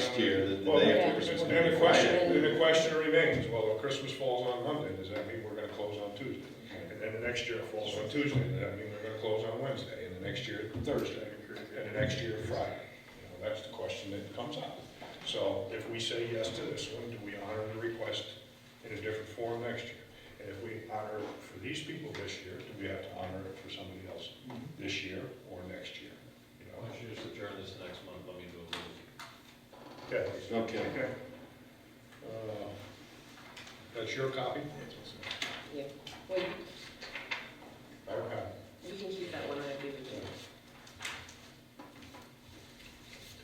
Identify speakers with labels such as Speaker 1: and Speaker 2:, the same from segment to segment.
Speaker 1: here that
Speaker 2: Well,
Speaker 1: they
Speaker 2: then
Speaker 1: have to
Speaker 3: Yeah.
Speaker 1: respond.
Speaker 2: the question, then the question remains, well, if Christmas falls on Monday, does that mean we're gonna close on Tuesday? And then the next year it falls on Tuesday, does that mean we're gonna close on Wednesday, and the next year Thursday, and the next year Friday? You know, that's the question that comes up. So if we say yes to this one, do we honor the request in a different form next year? And if we honor it for these people this year, do we have to honor it for somebody else this year or next year? You
Speaker 4: Why
Speaker 2: know,
Speaker 4: don't you just adjourn this next month, let me do a little.
Speaker 2: okay.
Speaker 1: Okay,
Speaker 2: Okay. Uh, That's your copy?
Speaker 3: Yeah, well, you
Speaker 2: I don't have.
Speaker 3: you can keep that one, I agree with you.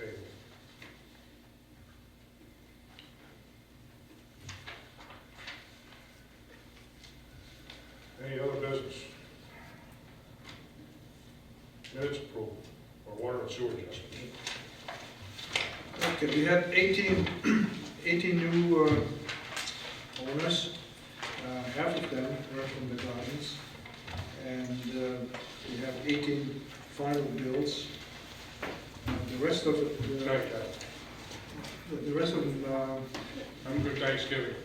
Speaker 2: Okay. Any other business? Minutes approval, or water and sewer adjustment.
Speaker 5: Okay, we had 18, 18 new uh, owners. Uh, Half of them were from the gardens. And uh, we have 18 final bills. Uh, The rest of, it, uh,
Speaker 2: Thank you.
Speaker 5: the the rest of them, uh,
Speaker 2: Have a good Thanksgiving.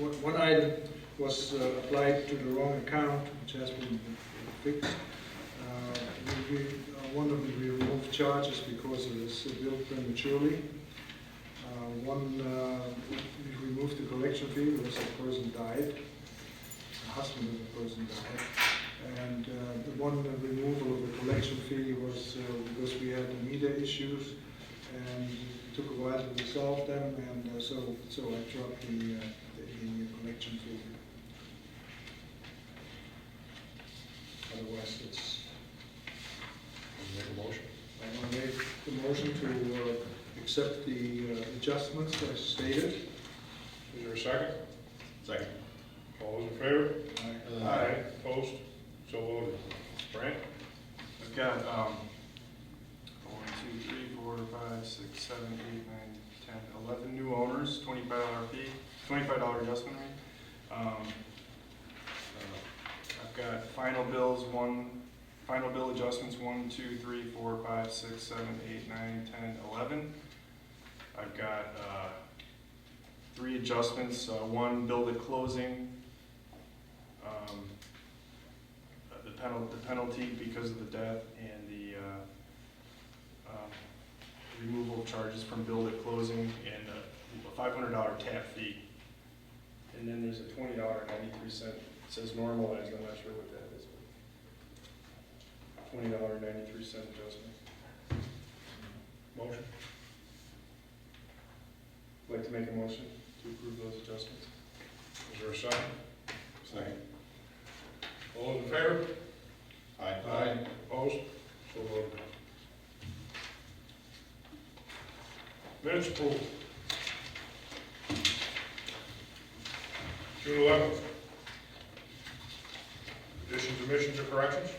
Speaker 5: One one item was uh, applied to the wrong account, which has been fixed. Uh, we- we- uh, One of them, we removed charges because it was billed prematurely. Uh, One, uh, we removed the collection fee because the person died, the husband of the person died. And uh, the one removal of the collection fee was uh, because we had meter issues, and it took a while to resolve them, and uh, so, so I dropped the, uh, the the collection fee. Otherwise, it's,
Speaker 2: Make a motion.
Speaker 5: I want to make the motion to uh, accept the uh, adjustments as stated.
Speaker 2: Is there a second?
Speaker 1: second.
Speaker 2: All those in favor?
Speaker 5: I-
Speaker 1: Uh,
Speaker 2: Opposed? So voted. Brant?
Speaker 6: I've got, um, one, two, three, four, five, six, seven, eight, nine, ten, eleven new owners, twenty-five dollar fee, twenty-five dollar adjustment rate. Um, uh, I've got final bills, one, final bill adjustments, one, two, three, four, five, six, seven, eight, nine, ten, eleven. I've got, uh, three adjustments, uh, one bill at closing, um, uh, the penalty, the penalty because of the death and the uh, um, removal of charges from bill at closing and uh, a five hundred dollar tap fee. And then there's a twenty dollar ninety-three cent, it says normalized, I'm not sure what that is. but Twenty dollar ninety-three cent adjustment.
Speaker 2: Motion.
Speaker 6: Like to make a motion to approve those adjustments?
Speaker 2: Is there a second?
Speaker 1: Second.
Speaker 2: All those in favor?
Speaker 1: Aye.
Speaker 2: Opposed? So voted. Minutes approved. June eleventh. Additions, omissions, or corrections?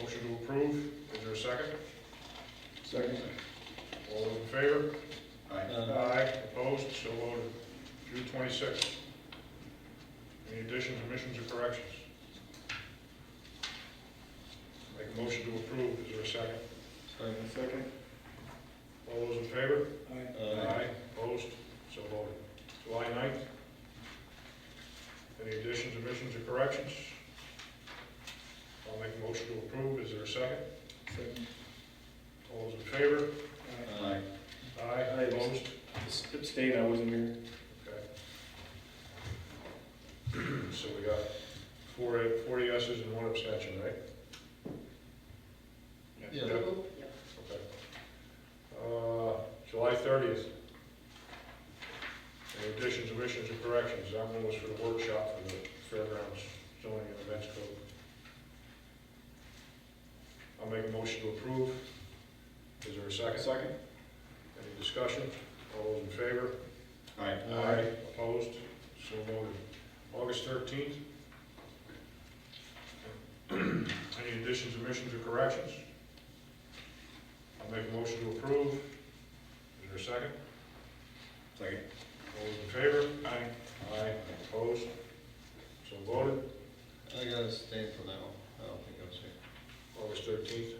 Speaker 2: Motion to approve, is there a second?
Speaker 5: Second.
Speaker 2: All those in favor?
Speaker 1: Aye.
Speaker 2: Aye. Opposed, so voted. June twenty-sixth. Any additions, omissions, or corrections? Make a motion to approve, is there a second?
Speaker 6: Second.
Speaker 2: All those in favor?
Speaker 5: I-
Speaker 1: Aye.
Speaker 2: Opposed, so voted. July 9th. Any additions, omissions, or corrections? I'll make a motion to approve, is there a second?
Speaker 5: Second.
Speaker 2: All those in favor?
Speaker 5: I-
Speaker 1: Aye.
Speaker 2: Aye. Opposed,
Speaker 6: Abstain, I wasn't here.
Speaker 2: Okay. So we got four, four yeses and one abstention, right?
Speaker 1: Yeah.
Speaker 3: Yep.
Speaker 2: Okay. Uh, July thirtieth. Any additions, omissions, or corrections? That one was for the workshop for the fairgrounds zoning and events code. I'll make a motion to approve. Is there a second? Second. Any discussion? All those in favor?
Speaker 1: Aye.
Speaker 2: Opposed? So voted. August thirteenth. Any additions, omissions, or corrections? I'll make a motion to approve. Is there a second?
Speaker 1: Second.
Speaker 2: All those in favor? Aye. Aye. Opposed? So voted.
Speaker 4: I gotta stay for that one, I don't think I was here.
Speaker 2: August thirteenth.